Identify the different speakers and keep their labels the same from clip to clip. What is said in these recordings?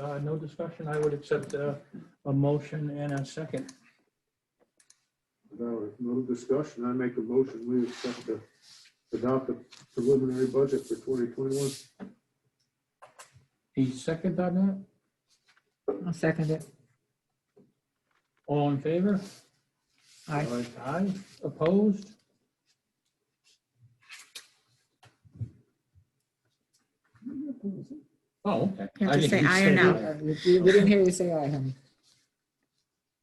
Speaker 1: uh, no discussion, I would accept uh, a motion and a second.
Speaker 2: Without no discussion, I make a motion, we accept the, adopt the preliminary budget for twenty twenty-one.
Speaker 1: A second on that?
Speaker 3: I'll second it.
Speaker 1: All in favor?
Speaker 3: Aye.
Speaker 1: Aye, opposed? Oh, okay.
Speaker 3: You
Speaker 1: I
Speaker 3: have to
Speaker 1: didn't
Speaker 3: say aye or
Speaker 1: that.
Speaker 3: no. We we didn't hear you say aye, honey.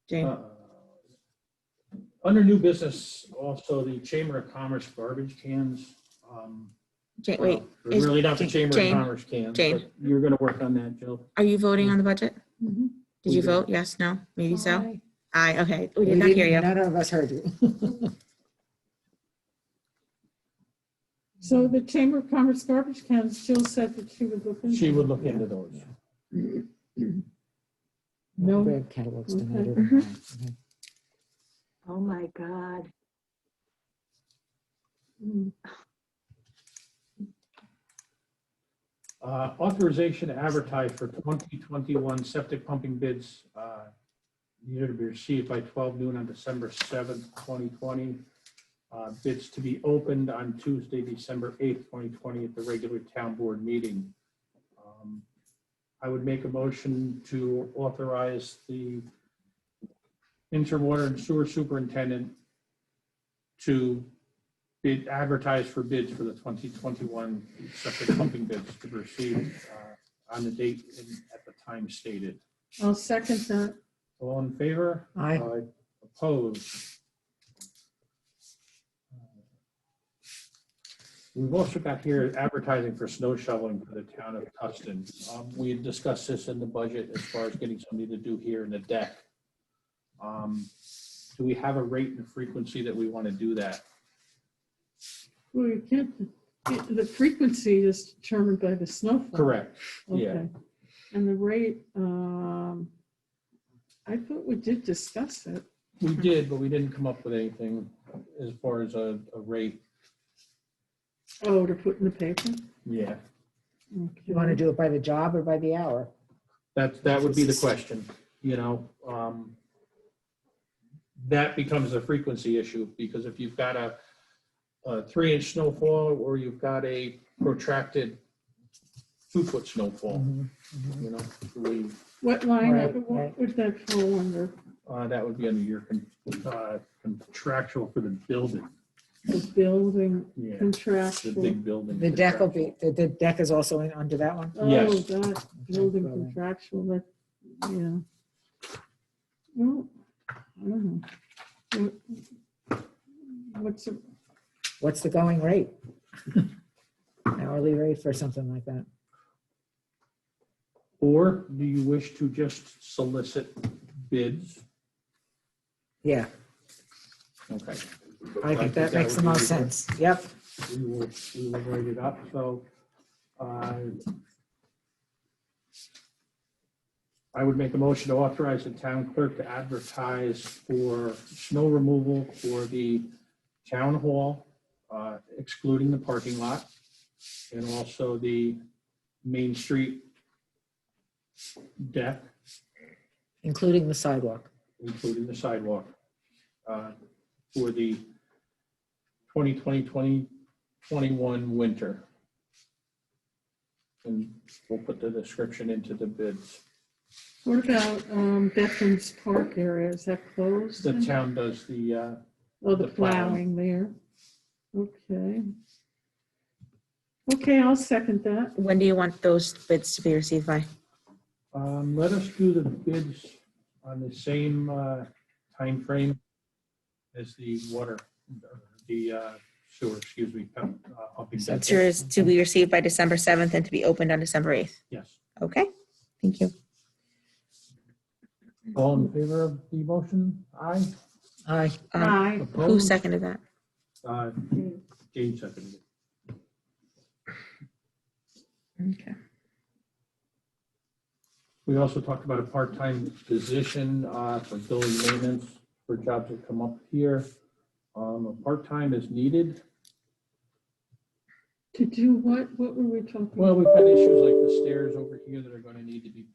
Speaker 3: Jane,
Speaker 1: Uh, Under new business, also the Chamber of Commerce garbage cans. um,
Speaker 3: Jane, wait,
Speaker 1: well,
Speaker 3: is-
Speaker 1: Really not the
Speaker 3: Jane-
Speaker 1: Chamber of
Speaker 3: Jane,
Speaker 1: Commerce cans,
Speaker 3: Jane.
Speaker 1: but you're gonna work on that, Jill.
Speaker 3: are you voting on the budget?
Speaker 4: Mhm.
Speaker 3: Mm-hmm. Did you vote? Yes, no, maybe so?
Speaker 4: Aye.
Speaker 3: Aye, okay. We We did not hear didn't- you. None of us heard you.
Speaker 4: So the Chamber of Commerce garbage cans, Jill said that she would look into.
Speaker 1: She would look into those.
Speaker 4: No, Mm-hmm.
Speaker 3: Brad catalogs donated. Okay.
Speaker 5: Oh my God.
Speaker 4: Mm,
Speaker 1: Uh, Authorization to advertise for 2021 septic pumping bids uh, needed to be received by 12 noon on December 7th, 2020. Uh, Bids to be opened on Tuesday, December 8th, 2020 at the regular town board meeting. Um, I would make a motion to authorize the interwater and sewer superintendent to bid, advertise for bids for the 2021 separate pumping bids to proceed uh, on the date and at the time stated.
Speaker 4: I'll second that.
Speaker 1: All in favor?
Speaker 3: Aye.
Speaker 1: Aye. Opposed? We've also got here advertising for snow shoveling for the town of Tustin. Um, We had discussed this in the budget as far as getting somebody to do here in the deck. Um, Do we have a rate and frequency that we want to do that?
Speaker 4: Well, you can't, it- the frequency is determined by the snowfall.
Speaker 1: Correct. yeah.
Speaker 4: Okay. And the rate, um, I thought we did discuss it.
Speaker 1: We
Speaker 3: Mm-hmm.
Speaker 1: did, but we didn't come up with anything as far as a, a rate.
Speaker 4: Oh, to put in the paper?
Speaker 1: Yeah.
Speaker 3: You want to do it by the job or by the hour?
Speaker 1: That, that would be the question, you know, um, that becomes a frequency issue, because if you've got a, a three inch snowfall, or you've got a protracted two foot snowfall,
Speaker 3: Mm-hmm.
Speaker 4: Mm-hmm.
Speaker 1: you know, we,
Speaker 4: What line,
Speaker 3: Right,
Speaker 4: item- what
Speaker 3: right.
Speaker 4: would that fall under?
Speaker 1: uh, that would be under your con- uh, contractual for the building,
Speaker 4: The building
Speaker 1: yeah, the
Speaker 4: contractual?
Speaker 1: big building.
Speaker 3: The deck will be,
Speaker 1: contractual.
Speaker 3: the- the deck is also in- under that one?
Speaker 4: Oh,
Speaker 1: Yes.
Speaker 4: that building contractual, that, yeah. Well, I don't know. What- What's, the-
Speaker 3: What's the going rate? Hourly rate for something like that?
Speaker 1: Or do you wish to just solicit bids?
Speaker 3: Yeah,
Speaker 1: Okay.
Speaker 3: I think that makes the
Speaker 1: would be
Speaker 3: most sense. Yep.
Speaker 1: We will, we will write it up, so. uh, I would make a motion to authorize the town clerk to advertise for snow removal for the town hall, uh, excluding the parking lot, and also the Main Street deck,
Speaker 3: Including the sidewalk.
Speaker 1: including the sidewalk, uh, for the 2020, 2021 winter. And we'll put the description into the bids.
Speaker 4: what about um, Bethune's Park area? Is that closed?
Speaker 1: The town does the, uh,
Speaker 4: Oh,
Speaker 1: the
Speaker 4: the
Speaker 1: plowing.
Speaker 4: plowing there. Okay. Okay, I'll second that.
Speaker 3: When do you want those bids to be received by?
Speaker 1: um, let us do the bids on the same uh, timeframe as the water, the uh, sewer, excuse me. pump- uh, pumping
Speaker 3: So
Speaker 1: bid.
Speaker 3: it's yours to be received by December 7th and to be opened on December 8th.
Speaker 1: Yes.
Speaker 3: Okay, thank you.
Speaker 1: All in favor of the motion? Aye.
Speaker 3: Aye. Uh,
Speaker 4: Aye.
Speaker 3: Who
Speaker 1: Opposed?
Speaker 3: seconded that?
Speaker 1: Uh, Jane seconded it.
Speaker 3: Okay.
Speaker 1: We also talked about a part-time position uh, for building maintenance for jobs that come up here. Um, A part-time is needed.
Speaker 4: To do what? What were we talking?
Speaker 1: Well, we've got issues like the stairs over here that are going to need to be